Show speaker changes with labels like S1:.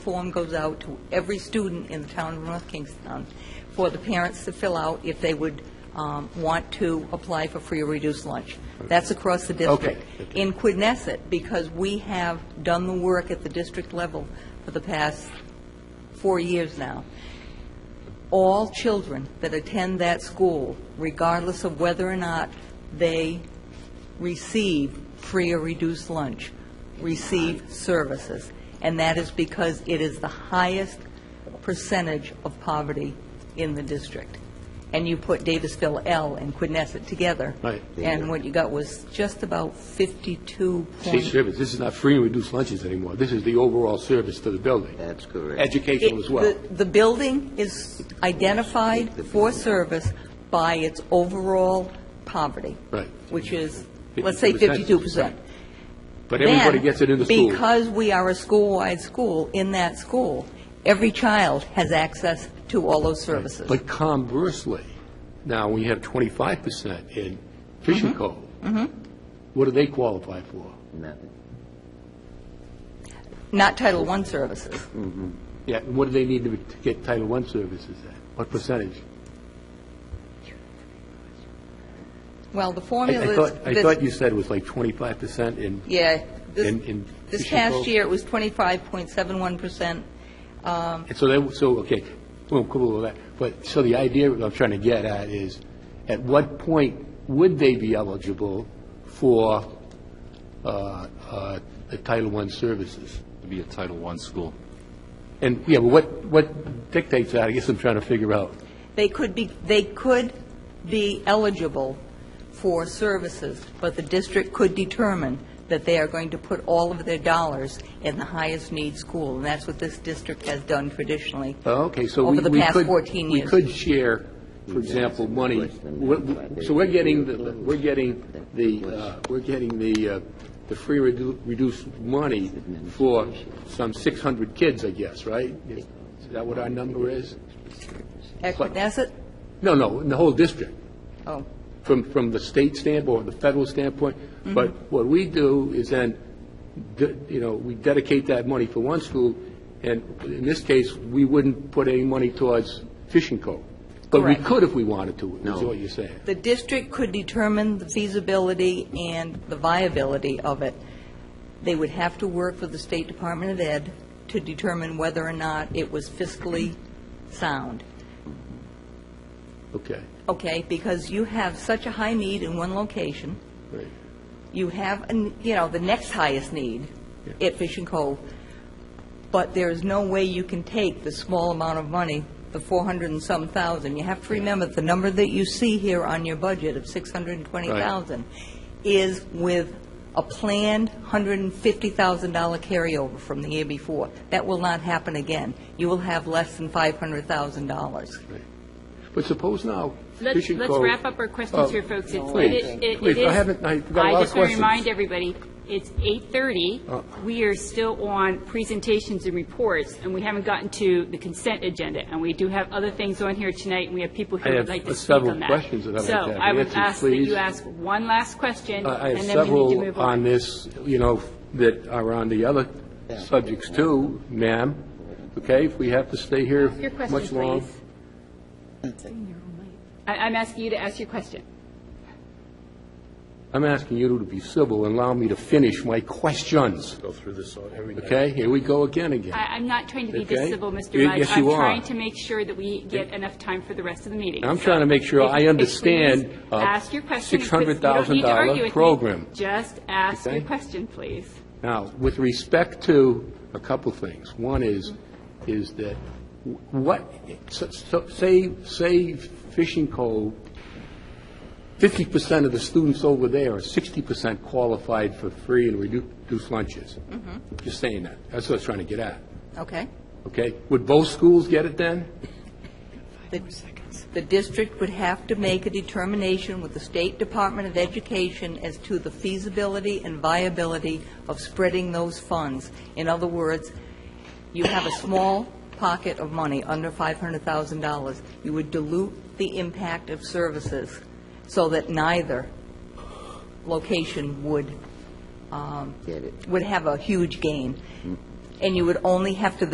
S1: Form goes out to every student in the town of North Kingston for the parents to fill out if they would um, want to apply for free or reduced lunch. That's across the district. In Quidnesset, because we have done the work at the district level for the past four years now, all children that attend that school, regardless of whether or not they receive free or reduced lunch, receive services. And that is because it is the highest percentage of poverty in the district. And you put Davisville L and Quinnesset together.
S2: Right.
S1: And what you got was just about 52
S2: State
S1: point...
S2: service, this is not free and reduced lunches anymore. This is the overall service to the building.
S3: That's correct.
S2: Educational as well.
S1: It- The the building is identified for service by its overall poverty.
S2: Right.
S1: Which is, let's say
S2: 52%.
S1: 52%.
S2: But everybody
S1: Then,
S2: gets it in the school.
S1: Because we are a school-wide school, in that school, every child has access to all those services.
S2: But conversely, now, we have 25% in
S1: Mm-hmm.
S2: Fisher Cove. What do they qualify for?
S3: Nothing.
S1: Not Title I services.
S2: Yeah, and what do they need to to get Title I services at? What percentage?
S1: Well, the
S2: I-
S1: formula
S2: I
S1: is...
S2: thought, I
S1: this-
S2: thought you said it was like 25% in,
S1: Yeah. this-
S2: in- in
S1: This
S2: Fisher Cove.
S1: past year, it was 25.71%. Um,
S2: And so that, so, okay, well, cool with that. But, so the idea that I'm trying to get at is, at what point would they be eligible for uh, uh, the Title I services?
S4: to be a Title I school.
S2: And, yeah, but what, what dictates that, I guess I'm trying to figure out.
S1: They could be, they could be eligible for services, but the district could determine that they are going to put all of their dollars in the highest need school, and that's what this district has done traditionally.
S2: Oh, Okay, so
S1: Over
S2: we we
S1: the
S2: could...
S1: past 14
S2: We
S1: years.
S2: could share, for example, money. What- So we're getting, the we're getting the, uh, we're getting the, uh, the free redu- reduced money for some 600 kids, I guess, right? Is that what our number is?
S1: At
S2: But-
S1: Knesset?
S2: No, no, in the whole district,
S1: Oh,
S2: from, from the state standpoint, the federal standpoint.
S5: Mm-hmm.
S2: But what we do is then, de- you know, we dedicate that money for one school, and in this case, we wouldn't put any money towards Fishing Cove. But we
S1: Correct.
S2: could if we wanted to, is what you're saying.
S1: the district could determine the feasibility and the viability of it. They would have to work with the State Department of Ed to determine whether or not it was fiscally sound.
S2: Okay,
S1: okay, because you have such a high need in one location.
S2: right.
S1: You have, an- you know, the next highest need
S2: Yeah.
S1: at Fish and Cove, but there is no way you can take the small amount of money, the 400 and some thousand. You have to remember, the number that you see here on your budget of 620,000 is with a planned $150,000 carryover from the year before. That will not happen again. You will have less than $500,000.
S2: But suppose now,
S5: Let's,
S2: Fishing Cove...
S5: let's wrap up our
S2: Oh,
S5: questions here, folks. It's- it-
S2: Please,
S5: it- it
S2: please, I
S5: is-
S2: haven't, I've got a lot of
S5: I just
S2: questions. Uh.
S5: want to remind everybody, it's 8:30. We are still on presentations and reports, and we haven't gotten to the consent agenda. And we do have other things on here tonight, and we have people who
S2: I
S5: would
S2: have
S5: like to speak on that.
S2: several questions that I'd like to have
S5: So I would
S2: answered,
S5: ask that
S2: please. Uh,
S5: you ask one last question,
S2: I I
S5: and
S2: have
S5: then we need to
S2: several
S5: move
S2: on
S5: on.
S2: this, you know, that are on the other subjects too, ma'am. Okay, if we have to stay here
S5: Your question,
S2: much long.
S5: please. I- I'm asking you to ask your question.
S2: I'm asking you to be civil and allow me to finish my questions. Go through this Okay, here we go again again.
S5: I- I'm not trying to be
S2: Okay.
S5: disagreeable, Mr.
S2: Y-
S5: Mudge.
S2: yes, you
S5: I'm
S2: are.
S5: trying to make sure that we get enough time for the rest of the meeting.
S2: I'm
S5: So
S2: trying to make sure
S5: if-
S2: I
S5: if-
S2: understand,
S5: please
S2: uh,
S5: Ask your question. and quit- you don't
S2: $600,000
S5: need to argue with me.
S2: program.
S5: Just ask your
S2: Okay.
S5: question, please.
S2: Now, with respect to a couple things, one is, is that w- what, so- so- say, say Fishing Cove, 50% of the students over there are 60% qualified for free and redu- reduced lunches. Just saying that, that's what I was trying to get at,
S1: Okay?
S2: okay? Would both schools get it then?
S1: The- The district would have to make a determination with the State Department of Education as to the feasibility and viability of spreading those funds. In other words, you have a small pocket of money, under $500,000. You would dilute the impact of services so that neither location would, um,
S3: Get it.
S1: would have a huge gain. And you would only have to